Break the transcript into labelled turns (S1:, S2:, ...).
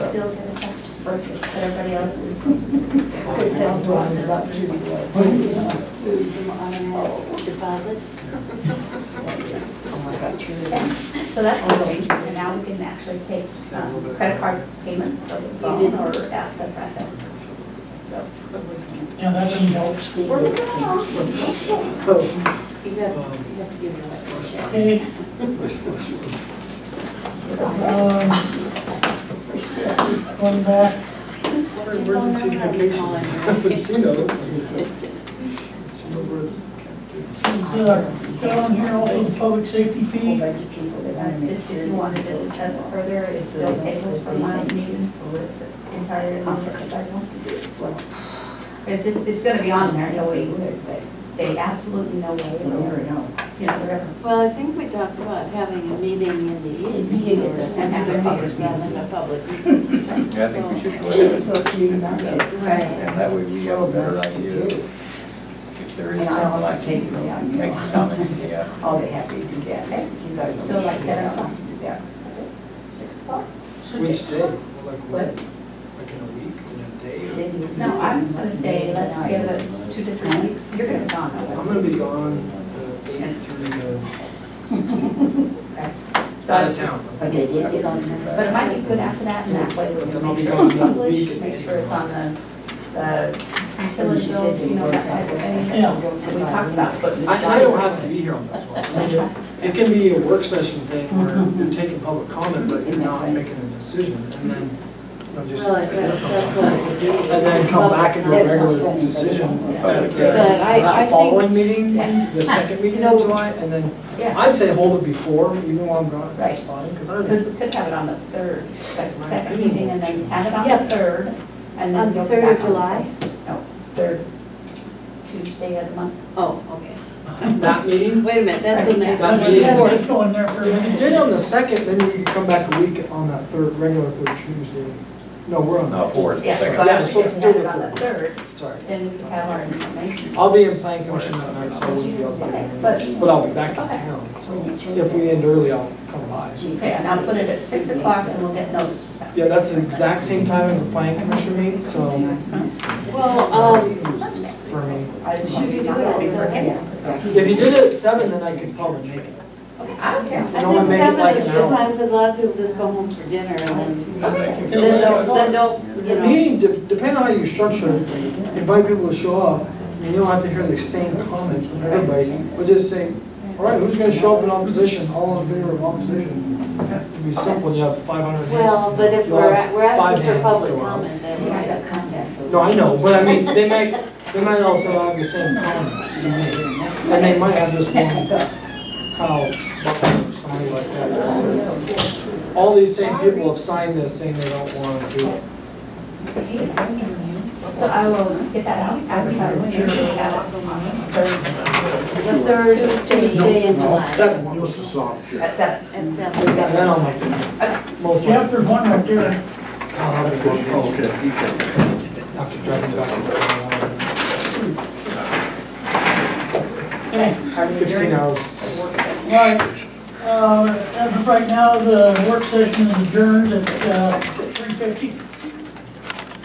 S1: still gonna have to focus, but everybody else is, is
S2: I'm talking
S1: self-employed.
S2: about Judy White.
S3: Food on a deposit.
S2: Oh my God, Judy White.
S1: So that's the way, and now we can actually take um, credit card payments over the phone or at the front desk. So,
S4: Yeah, that doesn't help.
S1: we're moving along.
S3: You have, you have to give your last check.
S4: Okay, um, going back,
S3: What are emergency vacations?
S5: She knows.
S4: uh, got on here also the public safety
S2: A whole
S4: fee.
S2: bunch of people that want
S1: That's
S2: to make
S1: just
S2: sure.
S1: if you wanted to discuss it further, it's still tabled from last meeting, so it's entirely on what you guys want to do. It's just, it's gonna be on there, no way you would, but say absolutely no way,
S2: You
S1: or,
S2: never know.
S1: you know, whatever.
S3: Well, I think we talked about having a meeting in the
S2: meeting
S3: evening
S2: at
S3: or
S2: the-
S3: since
S1: at the
S3: the
S1: public
S3: meeting's not in the public.
S6: Yeah, I think we should go ahead
S2: So if you not
S6: Yeah.
S2: it.
S3: Right.
S6: and that way we have a better
S2: So much to
S6: idea
S2: do.
S6: if there
S2: And
S6: is
S2: I'll
S6: something like,
S2: take me out, you
S6: make
S2: know.
S6: comments, yeah.
S2: I'll be happy to do that. Thank you guys.
S1: So like seven o'clock?
S2: Yeah.
S1: Six o'clock?
S5: Which day? Like what?
S2: What?
S5: Like in a week, in a day? or-
S2: Cindy?
S1: No, I was gonna say, let's give it two to three weeks, you're gonna be gone, though.
S5: I'm gonna be gone the eighth through uh, the sixteenth.
S1: So,
S5: Out of
S1: I-
S5: town.
S2: But they did get on there.
S1: but it might be good after that, and that way we
S5: Then
S1: can
S5: I'll
S1: make
S5: be
S1: sure it's
S5: gone that
S1: published,
S5: week.
S1: make sure it's on the, the
S2: And
S1: utility
S2: she said
S1: bills,
S2: they
S1: you know,
S2: were
S1: that type of
S2: something.
S1: thing.
S4: Yeah.
S1: So we talked about putting.
S5: I, I don't have to be here on this one. I mean, It can be a work session thing where you're taking public comment, but you're not making a decision, and then I'm just.
S3: Well, that- that's what it would do.
S5: And then come back and do a regular decision at
S3: But I- I
S5: the
S3: think-
S5: following meeting, the second meeting in July, and then,
S1: Yeah.
S5: I'd say hold it before, even while I'm gone, that's fine, because I already.
S1: Because we could have it on the third, like the second meeting, and then have it on
S3: Yeah.
S1: the third, and then
S3: On the
S1: go back on.
S3: third of July?
S1: No, third Tuesday of the month.
S3: Oh, okay.
S5: That meeting,
S3: Wait a minute, that's in that.
S5: That's
S4: That's, yeah,
S5: it.
S3: one.
S4: that's going there for a
S5: if you
S4: minute.
S5: did on the second, then you could come back a week on that third, regular third Tuesday. No, we're on
S6: No,
S5: that.
S6: four is the
S1: Yeah,
S6: second.
S1: so I was
S5: Yeah, so
S1: thinking have
S5: do
S1: it
S5: it
S1: on the third,
S5: Sorry.
S1: then we could have our information.
S5: I'll be in planning commission that night, so I wouldn't be up there.
S1: But-
S5: But I'll be back in town, so if we end early, I'll come by.
S1: Okay, and I'll put it at six o'clock and we'll get notices out.
S5: Yeah, that's the exact same time as the planning commission meeting, so
S3: Well, um,
S5: for me.
S3: should you do it at seven?
S5: If you did it at seven, then I could probably make it.
S1: Okay, I don't care.
S3: I
S5: You wanna
S3: think
S5: make it
S3: seven
S5: like
S3: is a
S5: an
S3: good
S5: hour.
S3: time because a lot of people just go home for dinner and then,
S6: Thank you.
S3: then don't, then don't, you
S5: The
S3: know.
S5: meeting, de- depending on how you structure it, invite people to show up, and you don't have to hear the same comments from everybody, but just say, all right, who's gonna show up in opposition, all in favor of opposition? It'd be simple, and you have five hundred hands.
S3: Well, but if
S5: You'll
S3: we're,
S5: have
S3: we're
S5: five
S3: asking for
S5: hands
S3: public
S5: go up.
S3: comment, then
S2: See,
S3: we
S2: I
S3: gotta
S2: got contacts. over
S5: No, I
S2: there.
S5: know, but I mean, they might, they might also have the same comments, to me. and they might have this one, Kyle, Buckner or somebody like that, that says, all these same people have signed this saying they don't wanna do it.
S1: So I will get that out, advertise, and we have it on the third,
S3: The third Tuesday in July.
S5: Second one.
S1: at seven.
S3: And
S5: And then
S3: seven.
S5: I'll make it. Most likely.
S4: Chapter one right there,
S5: I'll have it for you. After driving back.
S4: okay.
S5: Sixteen hours.
S4: Right, Um, uh, as of right now, the work session is adjourned at, uh, three fifty.